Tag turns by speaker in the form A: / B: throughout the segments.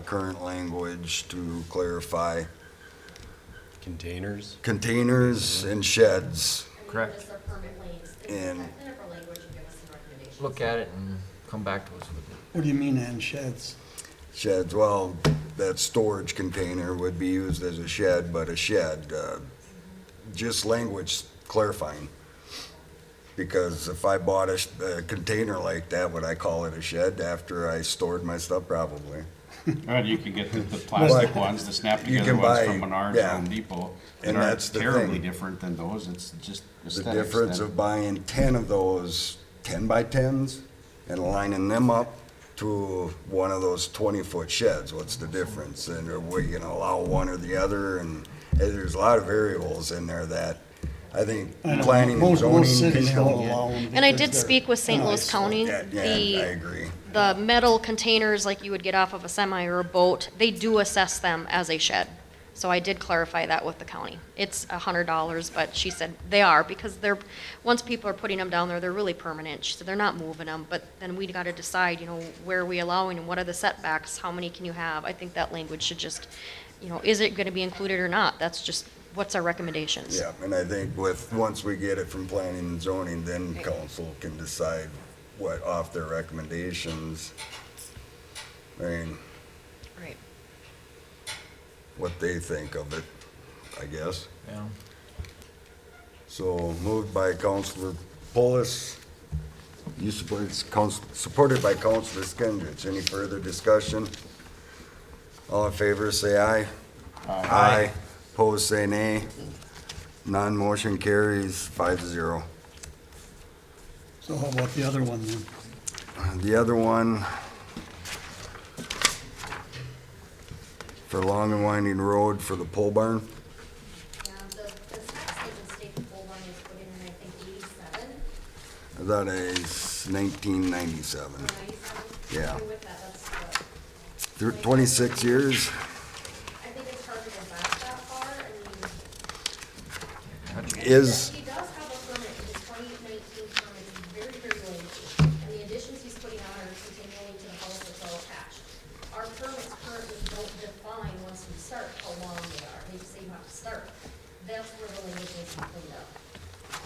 A: current language to clarify
B: Containers?
A: containers and sheds.
C: Correct.
D: Just the permit lanes, things
A: And-
D: like that, clean up our language and give us some recommendations.
C: Look at it and come back to us with it.
E: What do you mean and sheds?
A: Sheds, well, that storage container would be used as a shed, but a shed, uh, just language clarifying. Because if I bought a, sh- a container like that, would I call it a shed after I stored my stuff? Probably.
F: Right, you can get the, the plastic
A: But
F: ones, the snap
A: you
F: together
A: can
F: ones
A: buy-
F: from Menards
A: yeah.
F: or Home Depot.
A: And
F: That aren't
A: that's the
F: terribly
A: thing.
F: different than those, it's just
A: The
F: aesthetics.
A: difference
F: that-
A: of buying ten of those ten by tens and lining them up to one of those twenty-foot sheds, what's the difference? And are we gonna allow one or the other? And eh, there's a lot of variables in there that I think
E: I don't know.
A: planning and
E: Most-
A: zoning
E: Most cities don't
A: people.
E: allow them.
G: And I
E: because
G: did
E: they're
G: speak with St. Louis
E: nice.
G: County.
A: Yeah, yeah, I
G: The,
A: agree.
G: the metal containers like you would get off of a semi or a boat, they do assess them as a shed. So I did clarify that with the county. It's a hundred dollars, but she said they are because they're, once people are putting them down there, they're really permanent. She said they're not moving them, but then we gotta decide, you know, where are we allowing and what are the setbacks? How many can you have? I think that language should just, you know, is it gonna be included or not? That's just, what's our recommendations?
A: Yeah, and I think with, once we get it from planning and zoning, then council can decide what off their recommendations. I mean,
G: Right.
A: what they think of it, I guess.
C: Yeah.
A: So moved by Councilor Polis, you supported, council, supported by Councilor Skinsich. Any further discussion? All in favor, say aye. Aye. Opposed, say nay. Non-motion carries five to zero.
E: So how about the other one then?
A: The other one, for Long and Winding Road for the pole barn,
D: Um, the, the tax agent state full one is put in, I think, eighty-seven,
A: I thought it's nineteen ninety-seven.
D: ninety-seven.
A: Yeah.
D: With that, that's, uh,
A: Twenty-six years?
D: I think it's hard to go back that far, I mean.
A: Is-
D: He does have a permit, his twenty nineteen permit is very, very lengthy, and the additions he's putting on are continually to the house that's all attached. Our permits currently don't define, once you start, how long they are, they just say you have to start. That's where the language needs to be cleaned up.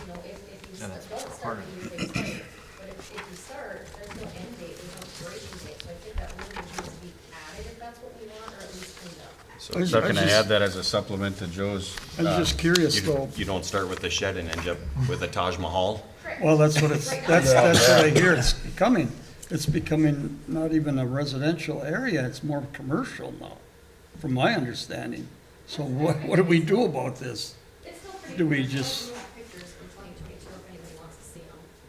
D: You know, if, if you
C: And
D: s- don't
C: that's part
D: start,
C: of
D: you do things later, but if, if you start, there's no end date, there's no expiration date, so I think that language needs to be added if that's what we want, or at least cleaned up.
E: I was-
H: So
E: I
H: can I
E: just-
H: add that as a supplement to Joe's?
E: I was just curious though.
B: You you don't start with a shed and end up with a Taj Mahal?
E: Well, that's what it's,
D: Right now.
E: that's, that's what I hear it's becoming. It's becoming not even a residential area, it's more commercial now, from my understanding. So what, what do we do about this?
D: It's still pretty.
E: Do we
D: fresh. I
E: just-
D: do have Pictures from twenty twenty-two, if anybody wants to see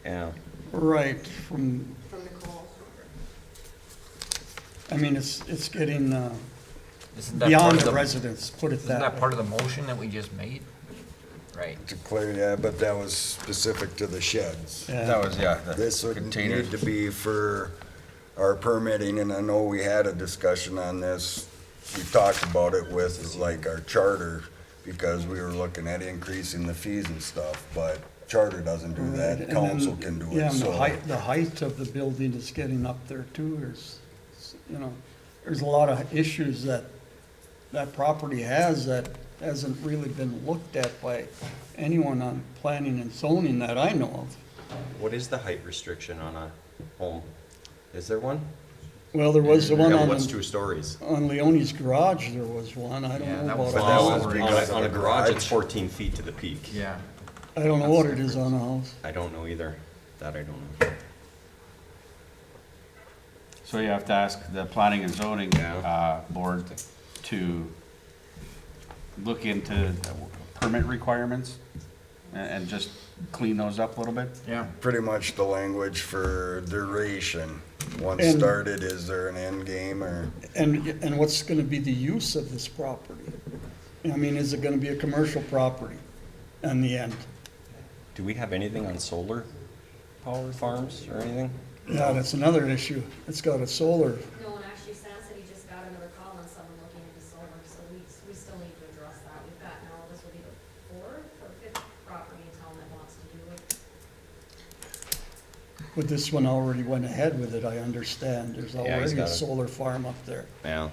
D: them,
B: Yeah.
E: Right, from,
D: from Nicole.
E: I mean, it's, it's getting, uh,
C: Isn't that part
E: beyond
C: of
E: the
C: the,
E: residents, put it
C: isn't
E: that
C: that
E: way.
C: part of the motion that we just made? Right.
A: To clear, yeah, but that was specific to the sheds.
E: Yeah.
H: That was, yeah,
A: This
H: the
A: would
H: containers.
A: need to be for our permitting, and I know we had a discussion on this. We talked about it with, like, our charter, because we were looking at increasing the fees and stuff, but charter doesn't do
E: Right,
A: that,
E: and
A: council
E: then-
A: can do
E: Yeah,
A: it,
E: and the
A: so.
E: height, the height of the building is getting up there too, there's, you know, there's a lot of issues that that property has that hasn't really been looked at by anyone on planning and zoning that I know of.
B: What is the height restriction on a home? Is there one?
E: Well, there was the one
B: Yeah, What's
E: on,
B: two stories?
E: on Leone's garage, there was one, I don't know
C: Yeah, that was
E: about
A: But
E: a
A: that
B: Well,
A: was
B: on
C: Wow.
B: a-
A: because of
B: On a
A: the
B: garage, it's
A: garage.
B: fourteen feet to the peak.
C: Yeah.
E: I don't know what it is on a house.
B: I don't know either. That I don't know.
H: So you have to ask the planning and zoning,
B: Yeah.
H: uh, board to look into permit requirements and, and just clean those up a little bit.
C: Yeah.
A: Pretty much the language for duration. Once
E: And-
A: started, is there an end game, or?
E: And, and what's gonna be the use of this property? I mean, is it gonna be a commercial property in the end?
B: Do we have anything on solar power farms or anything?
E: Yeah, that's another issue. It's got a solar,
D: No, and actually Sam said he just got another call on someone looking into solar, so we, we still need to address that. We've got now, this will be the fourth or fifth property in town that wants to do it.
E: but this one already went ahead with it, I understand. There's
B: Yeah, he's
E: already
B: got
E: a
B: it.
E: solar farm up there.
B: Yeah.